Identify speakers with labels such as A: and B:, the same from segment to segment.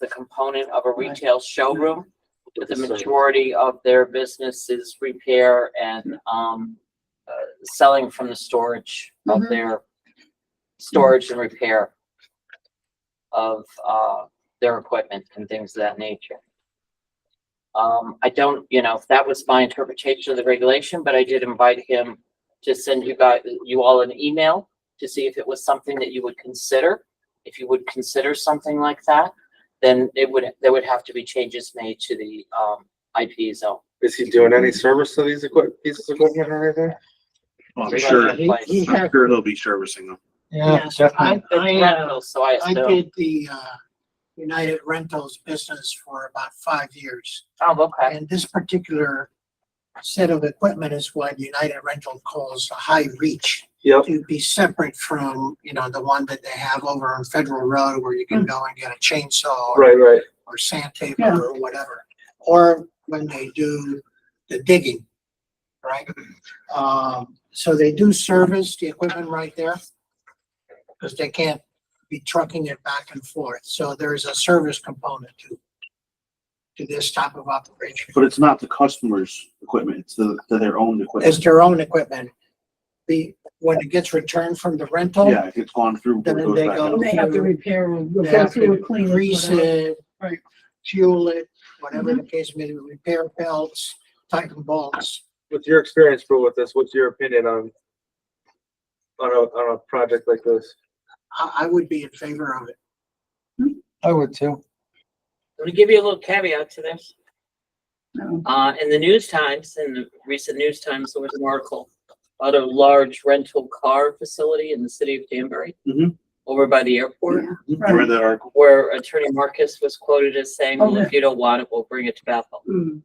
A: the component of a retail showroom. The majority of their business is repair and, um, uh, selling from the storage of
B: Mhm.
A: their, storage and repair of, uh, their equipment and things of that nature. Um, I don't, you know, that was my interpretation of the regulation, but I did invite him to send you guys, you all an email to see if it was something that you would consider. If you would consider something like that, then it would, there would have to be changes made to the, um, IP zone.
C: Is he doing any service to these equip, pieces of equipment or anything?
D: Well, I'm
A: Right.
D: sure,
A: He- he
D: I'm sure they'll be servicing them.
E: Yeah, I, I, uh,
A: So I
E: I
A: assume,
E: did the, uh, United Rentals business for about five years.
A: oh, okay,
E: And this particular set of equipment is what United Rental calls a high reach.
C: Yep.
E: To be separate from, you know, the one that they have over on Federal Road where you can go and get a chainsaw or-
C: Right, right.
E: or sandpaper or whatever. Or when they do the digging, right? Um, so they do service the equipment right there. Cause they can't be trucking it back and forth. So there's a service component to, to this type of operation.
D: But it's not the customer's equipment, it's the, to their own
E: It's
D: equipment.
E: their own equipment. The, when it gets returned from the rental,
D: Yeah, it's gone through.
E: Then
D: goes
E: they
D: back
E: go-
D: out.
F: And they have to repair or
E: They have
F: go through
E: to
F: a clean.
E: grease it,
F: Right.
E: fuel it, whatever the case may be, repair belts, tighten bolts.
C: With your experience, Bill, with this, what's your opinion on on a, on a project like this?
E: I, I would be in favor of it.
G: I would too.
A: let me give you a little caveat to this.
F: No.
A: Uh, in the News Times, in the recent News Times, there was an article about a large rental car facility in the city of Danbury.
D: Mhm.
A: Over by the airport,
D: I read that article.
A: where Attorney Marcus was quoted as saying, well,
F: Oh,
A: if you don't want it, we'll bring it to Bethel.
F: Mm.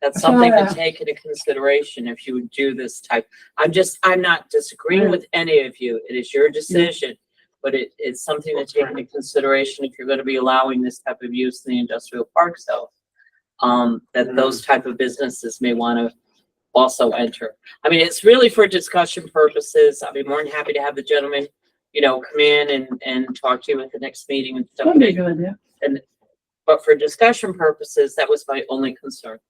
A: That's something to
F: Yeah.
A: take into consideration if you would do this type. I'm just, I'm not disagreeing with any of you. It is your decision. But it, it's something to take into consideration if you're gonna be allowing this type of use in the industrial park zone. Um, that
F: Mm-hmm.
A: those type of businesses may wanna also enter. I mean, it's really for discussion purposes. I'd be more than happy to have the gentleman, you know, come in and, and talk to you at the next meeting and stuff.
F: That'd be a good idea.
A: But for discussion purposes, that was my only concern.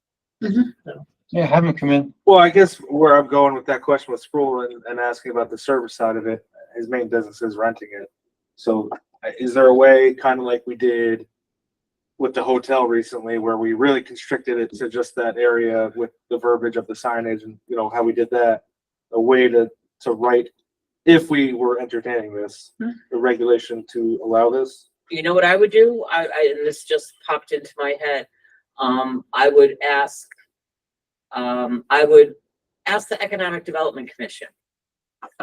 G: Yeah, have him come in.
C: Well, I guess where I'm going with that question with Sproul and, and asking about the service side of it, his main business is renting it. So uh, is there a way, kind of like we did with the hotel recently, where we really constricted it to just that area with the verbiage of the signage and, you know, how we did that? A way to, to write, if we were entertaining this, the regulation to allow this?
A: you know what I would do? I, I, and this just popped into my head. Um, I would ask, um, I would ask the Economic Development Commission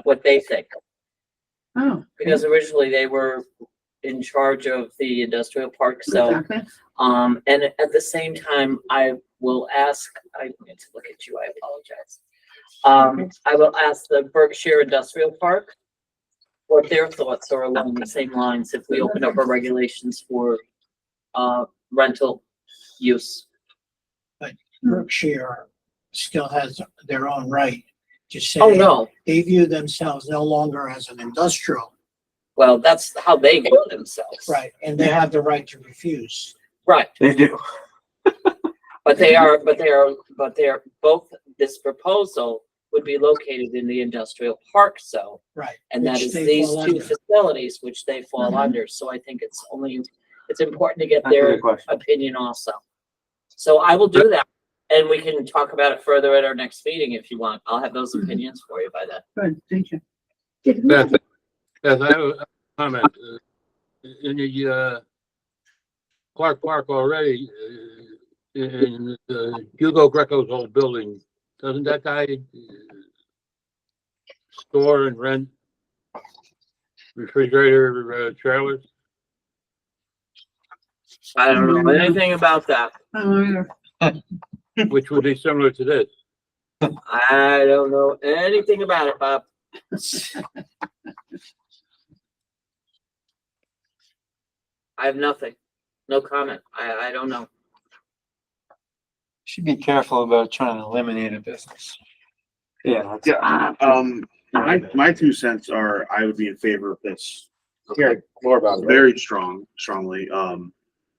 A: what they think,
F: Oh.
A: because originally they were in charge of the industrial park zone.
F: Exactly.
A: Um, and at the same time, I will ask, I need to look at you, I apologize. Um, I will ask the Berkshire Industrial Park what their thoughts are along the same lines if we open up our regulations for, uh, rental use.
E: Berkshire still has their own right to say.
A: Oh, no.
E: They view themselves no longer as an industrial,
A: Well, that's how they view themselves.
E: right, and they have the right to refuse.
A: Right.
C: They do.
A: But they are, but they are, but they're both, this proposal would be located in the industrial park zone.
E: Right.
A: And that
E: Which
A: is
E: they
A: these
E: fall
A: two
E: under.
A: facilities which they fall
F: Mhm.
A: under, so I think it's only, it's important to get
C: That's a
A: their
C: good question.
A: opinion also. So I will do that, and we can talk about it further at our next meeting if you want, I'll have those
F: Mhm.
A: opinions for you by then.
F: Good, thank you.
H: Beth, Beth, I have a comment. Uh, In the, uh, Clark Park already, uh, in, uh, Hugo Greco's old building, doesn't that guy uh, store and rent refrigerator uh, trailers?
A: I don't know anything about that,
F: I don't know either.
H: Which would be similar to this.
A: I don't know anything about it, Bob. I have nothing, no comment, I, I don't know.
G: Should be careful about trying to eliminate a business.
C: Yeah.
D: Yeah, um, my, my two cents are, I would be in favor of this.
C: Hearing more about it.
D: Very strong, strongly, um,